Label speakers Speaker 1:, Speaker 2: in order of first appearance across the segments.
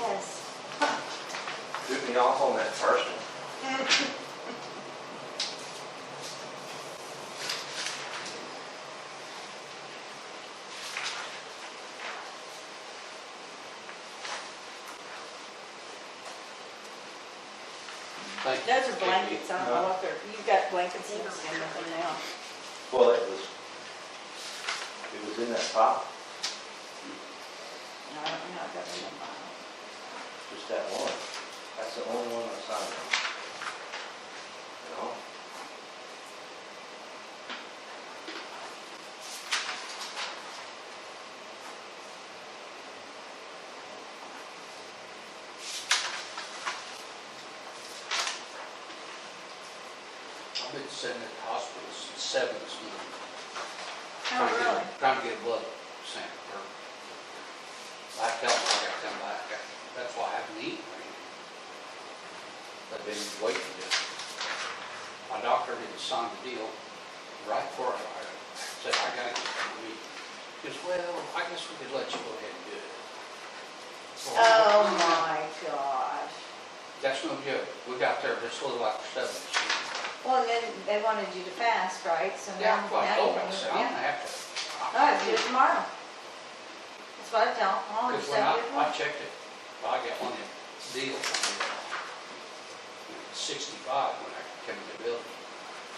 Speaker 1: Yes.
Speaker 2: Threw me off on that first one.
Speaker 3: Thank you.
Speaker 1: Those are blankets, I don't know what they're, you've got blankets in some of them now.
Speaker 2: Well, it was, it was in that pot,
Speaker 1: No, I don't know how I got them in mine.
Speaker 2: just that one. That's the only one I signed on. You know?
Speaker 3: I've been sitting at the hospital since seven this morning.
Speaker 1: Oh,
Speaker 3: trying to get-
Speaker 1: really?
Speaker 3: Trying to get a blood sample. or- I felt like I come back, I- that's why I haven't eaten or anything. I've been waiting to, my doctor didn't sign the deal right before I I said, I gotta get some meat. He goes, well, I guess we could let you go ahead and do it. Well,
Speaker 1: Oh, my gosh.
Speaker 3: That's no joke, we got there just a little after seven. this morning.
Speaker 1: Well, then they wanted you to fast, right? So now,
Speaker 3: Yeah, well, I
Speaker 1: now you
Speaker 3: told her, I
Speaker 1: can,
Speaker 3: said, I'm gonna
Speaker 1: yeah.
Speaker 3: have to.
Speaker 1: No, it's due tomorrow. That's what I tell them, oh, you
Speaker 3: Because when
Speaker 1: said
Speaker 3: I,
Speaker 1: you
Speaker 3: I checked it, I got one of them deals, you know, sixty-five when I came to the building,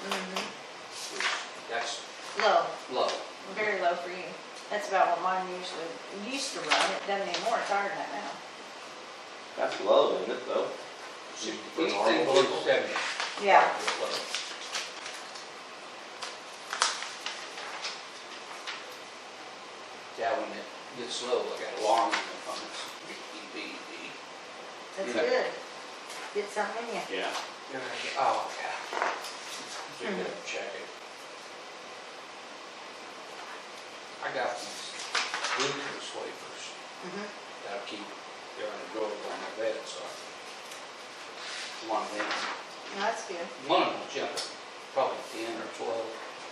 Speaker 1: Mm-hmm,
Speaker 3: which, that's
Speaker 1: low,
Speaker 3: low.
Speaker 1: very low for you. That's about what mine usually, it used to run, it doesn't anymore, it's higher than that now.
Speaker 2: That's low, isn't it, though? For normal
Speaker 3: Anything below
Speaker 2: people.
Speaker 3: seventy.
Speaker 1: Yeah.
Speaker 3: is low. Yeah, when it gets low, I got alarm in the phone, it's E beep, beep, beep, beep.
Speaker 1: That's
Speaker 3: Yeah.
Speaker 1: good. Get something in you.
Speaker 2: Yeah.
Speaker 3: You're gonna get, oh, yeah. So you gotta
Speaker 1: Mm-hmm.
Speaker 3: check it. I got these glucose wafers
Speaker 1: Mm-hmm.
Speaker 3: that I keep, they're in a drawer on my bed, so. I- One of them,
Speaker 1: No, That's good.
Speaker 3: one of them's junk, probably ten or twelve,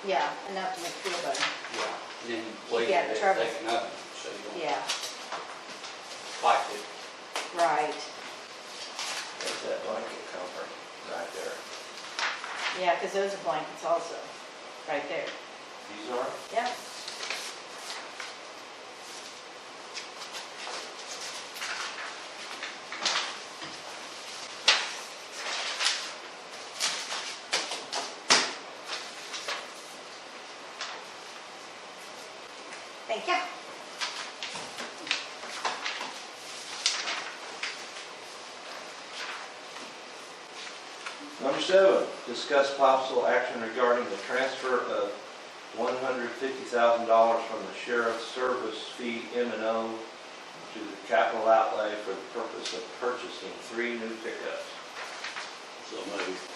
Speaker 1: Yeah, enough to make you feel better.
Speaker 3: yeah, and then
Speaker 1: Keep
Speaker 3: later
Speaker 1: you out of
Speaker 3: they
Speaker 1: trouble.
Speaker 3: take another, one, so you don't
Speaker 1: Yeah,
Speaker 3: like it.
Speaker 1: right.
Speaker 2: There's that blanket comfort right there.
Speaker 1: Yeah, because those are blankets also, right there.
Speaker 2: These are?
Speaker 1: Yeah. Thank you.
Speaker 2: Number seven, discuss possible action regarding the transfer of one hundred fifty thousand dollars from the sheriff's service fee M and O to the capital outlay for the purpose of purchasing three new pickups.
Speaker 4: So move.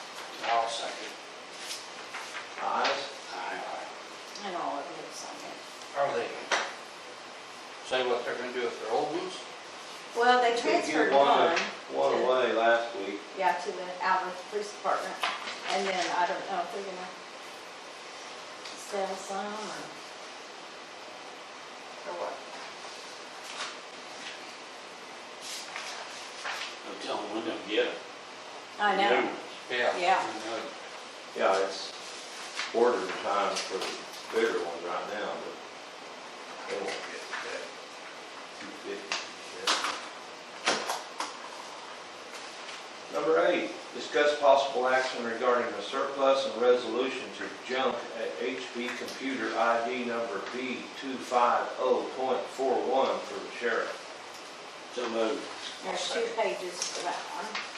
Speaker 3: I'll second.
Speaker 2: Ayes?
Speaker 3: Aye,
Speaker 1: And all of you have signed it.
Speaker 3: aye. Are they, say what they're gonna do with their old ones?
Speaker 1: Well, they
Speaker 2: They
Speaker 1: transferred
Speaker 2: give one
Speaker 1: one.
Speaker 2: a- One
Speaker 1: to-
Speaker 2: away last week.
Speaker 1: Yeah, to the Alva Police Department, and then I don't know if they're gonna sell some or, or what.
Speaker 4: I'm telling them, we're gonna get them.
Speaker 1: I know,
Speaker 3: Yeah.
Speaker 1: Yeah.
Speaker 3: I know.
Speaker 2: Yeah, it's order time for the bigger ones right now, but they won't get that two fifty. Number eight, discuss possible action regarding the surplus and resolution to junk at HB computer ID number B two five oh point four one for the sheriff.
Speaker 4: So move.
Speaker 1: there's two pages for that one.